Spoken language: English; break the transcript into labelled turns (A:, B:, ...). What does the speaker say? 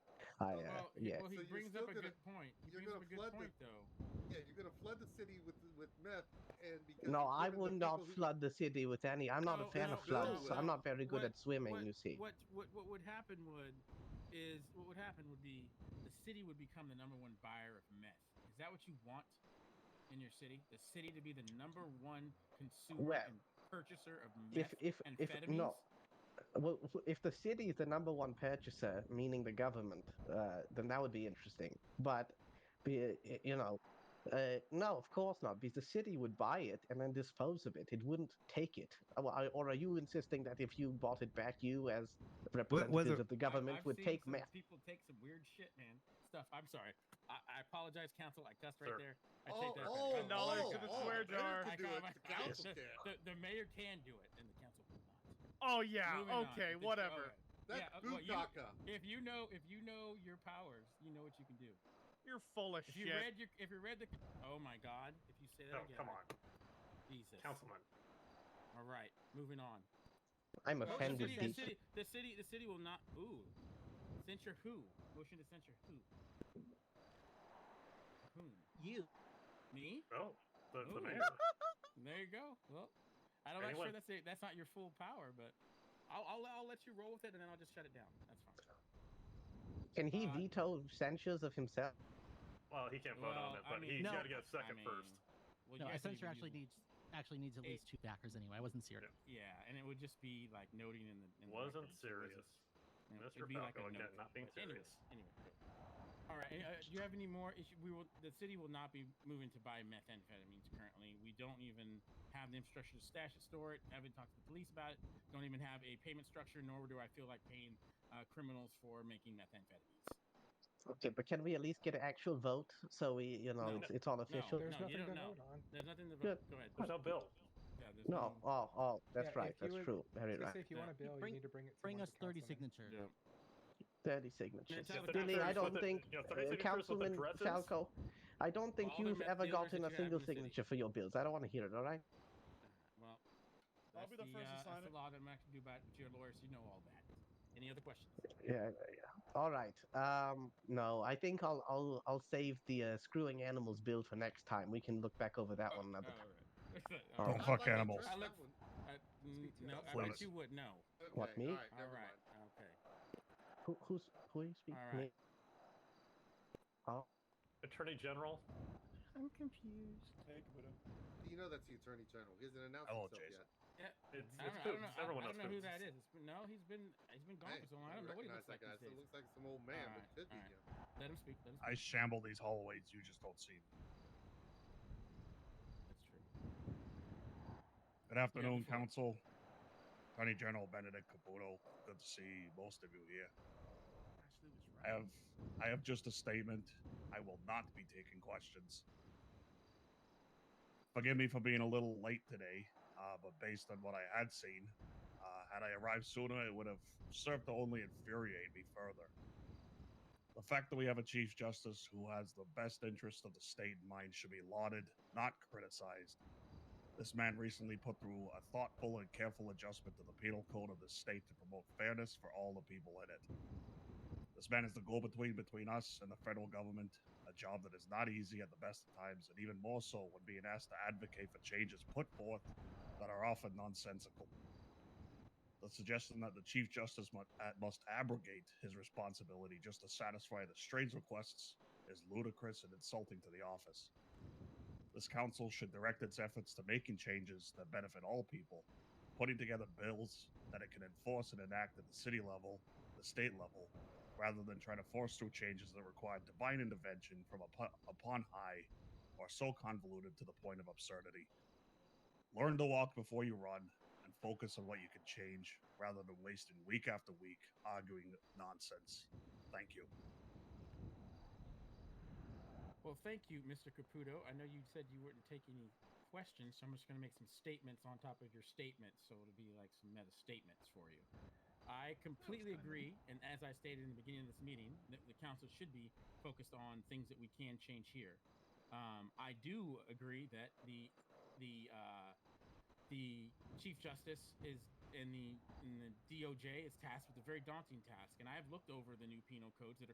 A: I,
B: Well,
A: uh,
B: he-
A: yeah.
B: Well, he
C: So you're
B: brings
C: still
B: up a
C: gonna-
B: good point. He
C: you're
B: brings up
C: gonna
B: a good
C: flood the-
B: point, though.
C: Yeah, you're gonna flood the city with with meth and because
A: No,
C: you're
A: I
C: giving the
A: would not
C: people who-
A: flood the city with any. I'm not
B: No,
A: a fan
B: no,
A: of floods.
C: no,
A: so I'm
B: no.
A: not very good
B: What-
A: at swimming,
B: what-
A: you see.
B: What what what would happen would is what would happen would be the city would become the number one buyer of meth. Is that what you want in your city? The city to be the number one consumer
A: Well,
B: and purchaser of
A: if
B: meth
A: if
B: and
A: if
B: amphetamines?
A: no well f- if the city is the number one purchaser meaning the government uh, then that would be interesting but be, y- you know uh, no of course not because the city would buy it and then dispose of it it wouldn't take it Uh, well, I- or are you insisting that if you bought it back you as representatives of the
B: I-
A: government
B: I've
A: would
B: seen
A: take
B: some
A: meth
B: People take some weird shit, man. Stuff. I'm sorry. I, I apologize, council. I cussed right
D: Sir.
B: there. I
C: Oh,
B: take that.
C: oh,
B: back.
D: dollars
C: oh,
D: to the
C: oh,
D: swear
C: the mayor
D: jar.
C: can
B: I
C: do
B: got
C: it,
B: my-
C: the council
B: the,
C: can't.
B: the, the mayor can do it, and the council will not.
D: Oh yeah.
B: Moving on.
D: okay.
B: It's-
D: Whatever.
B: alright.
C: That's
B: Yeah, uh, well, you-
C: bukkake.
B: If you know, if you know your powers, you know what you can do.
D: You're full of
B: If
D: shit.
B: you read your, if you read the, oh my God, if you say that
D: no,
B: again,
D: Oh, come on,
B: Jesus.
D: councilman.
B: All right, moving on.
A: i'm
B: Well,
A: offended
B: The city, the
A: Beast.
B: city, the city, the city will not. Ooh, censure who? Motion to censure who? Whom?
A: you
B: Me?
D: Oh, the, the
B: Ooh.
D: mayor.
B: There you go. Well, I don't. I'm
D: Anyone?
B: sure that's it. That's not your full power, but I'll, I'll I'll let you roll with it, and then I'll just shut it down. That's fine.
A: can he
B: Uh,
A: veto censures of himself
D: Well, he can't vote
B: Well,
D: on it,
B: I
D: but
B: mean-
D: he's
E: No.
D: got to get a second
B: I
D: first.
B: mean, Well,
E: No,
B: you
E: a
B: guys didn't
E: censor
B: even
E: actually
B: use
E: needs actually needs at
B: Eight.
E: least two backers anyway. I wasn't serious.
B: it. Yeah, and it would just be like noting in the. In the
D: Wasn't
B: records. It
D: serious.
B: wasn't- you know,
D: Mr.
B: it'd be like a
D: Falco again,
B: note.
D: not being
B: But anyway,
D: serious.
B: anyway. All right. any- Uh, do you have any more? Issue? We will. The city will not be moving to buy methamphetamines currently. We don't even have the infrastructure to stash it, store it. Haven't talked to the police about it. Don't even have a payment structure. Nor do I feel like paying uh, criminals for making methamphetamines.
A: okay but can we at least get an actual vote so we you know
B: No.
A: it's, it's all official
B: no,
F: There's nothing
B: you don't
F: to
B: know.
F: vote on.
B: There's nothing to
A: Good.
B: Go ahead.
D: There's no bill.
B: Yeah, there's
A: No, oh, oh, that's
F: Yeah,
A: right.
F: if you
A: That's
F: would-
A: true. Very
F: Just
A: right.
F: say if you want a bill,
E: Bring-
F: you need to bring it. To
E: Bring
F: one
E: us
F: of the
E: 30
F: councilmen.
E: signatures.
B: Yeah.
A: Thirty signatures.
B: It's
D: Just
A: Really,
B: signatures
A: I
D: with
A: don't
D: the-
A: think,
D: you know, 30
A: uh,
D: signatures with
A: Councilman
D: addresses?
A: Falco, I don't think
B: all the
A: you've
B: meth
A: ever
B: dealers
A: gotten a
B: that you have in
A: single
B: the city.
A: signature for your bills. I don't want to hear it. All right?
B: Well,
G: I'll
B: that's
G: be the first to
B: uh,
G: sign
B: that's
G: it.
B: the law that I'm not going to do about it, but your lawyers. You know all that. Any other questions?
A: Yeah. yeah. All right. Um, no, I think I'll I'll I'll save the uh, screwing animals bill for next time. We can look back over that
B: Oh,
A: one another
B: all
A: time.
B: right.
H: Oh,
B: All
C: Not
B: right.
H: fuck
C: like I
H: animals.
C: trust
B: I look-
C: that one.
B: Uh, n-
F: Speak to
B: no,
F: us.
B: I
H: Flip
B: bet
H: it.
B: you would know.
A: What,
C: Okay,
A: me?
C: All right,
B: All
C: never
B: right.
C: mind.
B: Okay.
A: Who who's who are you speaking?
B: All right.
A: Oh,
D: Attorney General.
E: I'm confused.
G: Take Widow.
C: You know that's the attorney general. He hasn't announced
H: Hello,
C: himself yet.
H: Jason.
D: It's,
B: I don't,
D: it's
B: know, I don't
D: Boobs.
B: know, I-
D: Everyone
B: I
D: else
B: don't know who
D: Boobs.
B: that is. It's been, no, he's been he's been gone
C: Hey,
B: for so long.
C: you
B: I don't know what he
C: recognize
B: looks like
C: that guy.
B: these
C: Still
B: days.
C: looks like some old man, but
B: Alright,
C: it could be
B: alright.
C: him.
B: Let him speak. Let him
H: I
B: speak.
H: shamble these hallways. You just don't see me.
B: That's true.
H: Good afternoon,
B: before-
H: Council. Attorney General Benedict Caputo. Good to see most of you here. I have, I have just a statement. I will not be taking questions. Forgive me for being a little late today, uh, but based on what I had seen, uh, had I arrived sooner, it would have served to only infuriate me further. The fact that we have a Chief Justice who has the best interest of the state in mind should be lauded, not criticized. This man recently put through a thoughtful and careful adjustment to the penal code of the state to promote fairness for all the people in it. This man is the go between between us and the federal government, a job that is not easy at the best of times, and even more so when being asked to advocate for changes put forth that are often nonsensical. The suggestion that the Chief Justice mu- uh, must abrogate his responsibility just to satisfy the strange requests is ludicrous and insulting to the office. This council should direct its efforts to making changes that benefit all people, putting together bills that it can enforce and enact at the city level, the state level, rather than trying to force through changes that require divine intervention from upo- upon high or so convoluted to the point of absurdity. Learn to walk before you run and focus on what you can change rather than wasting week after week arguing nonsense. Thank you.
B: Well, thank you, Mr. Caputo. I know you said you wouldn't take any questions, so I'm just going to make some statements on top of your statements, so it'll be like some meta statements for you. I completely agree, and as I stated in the beginning of this meeting, that the council should be focused on things that we can change here. Um, I do agree that the the uh, the chief justice is in the in the DOJ is tasked with a very daunting task, and I have looked over the new penal codes that are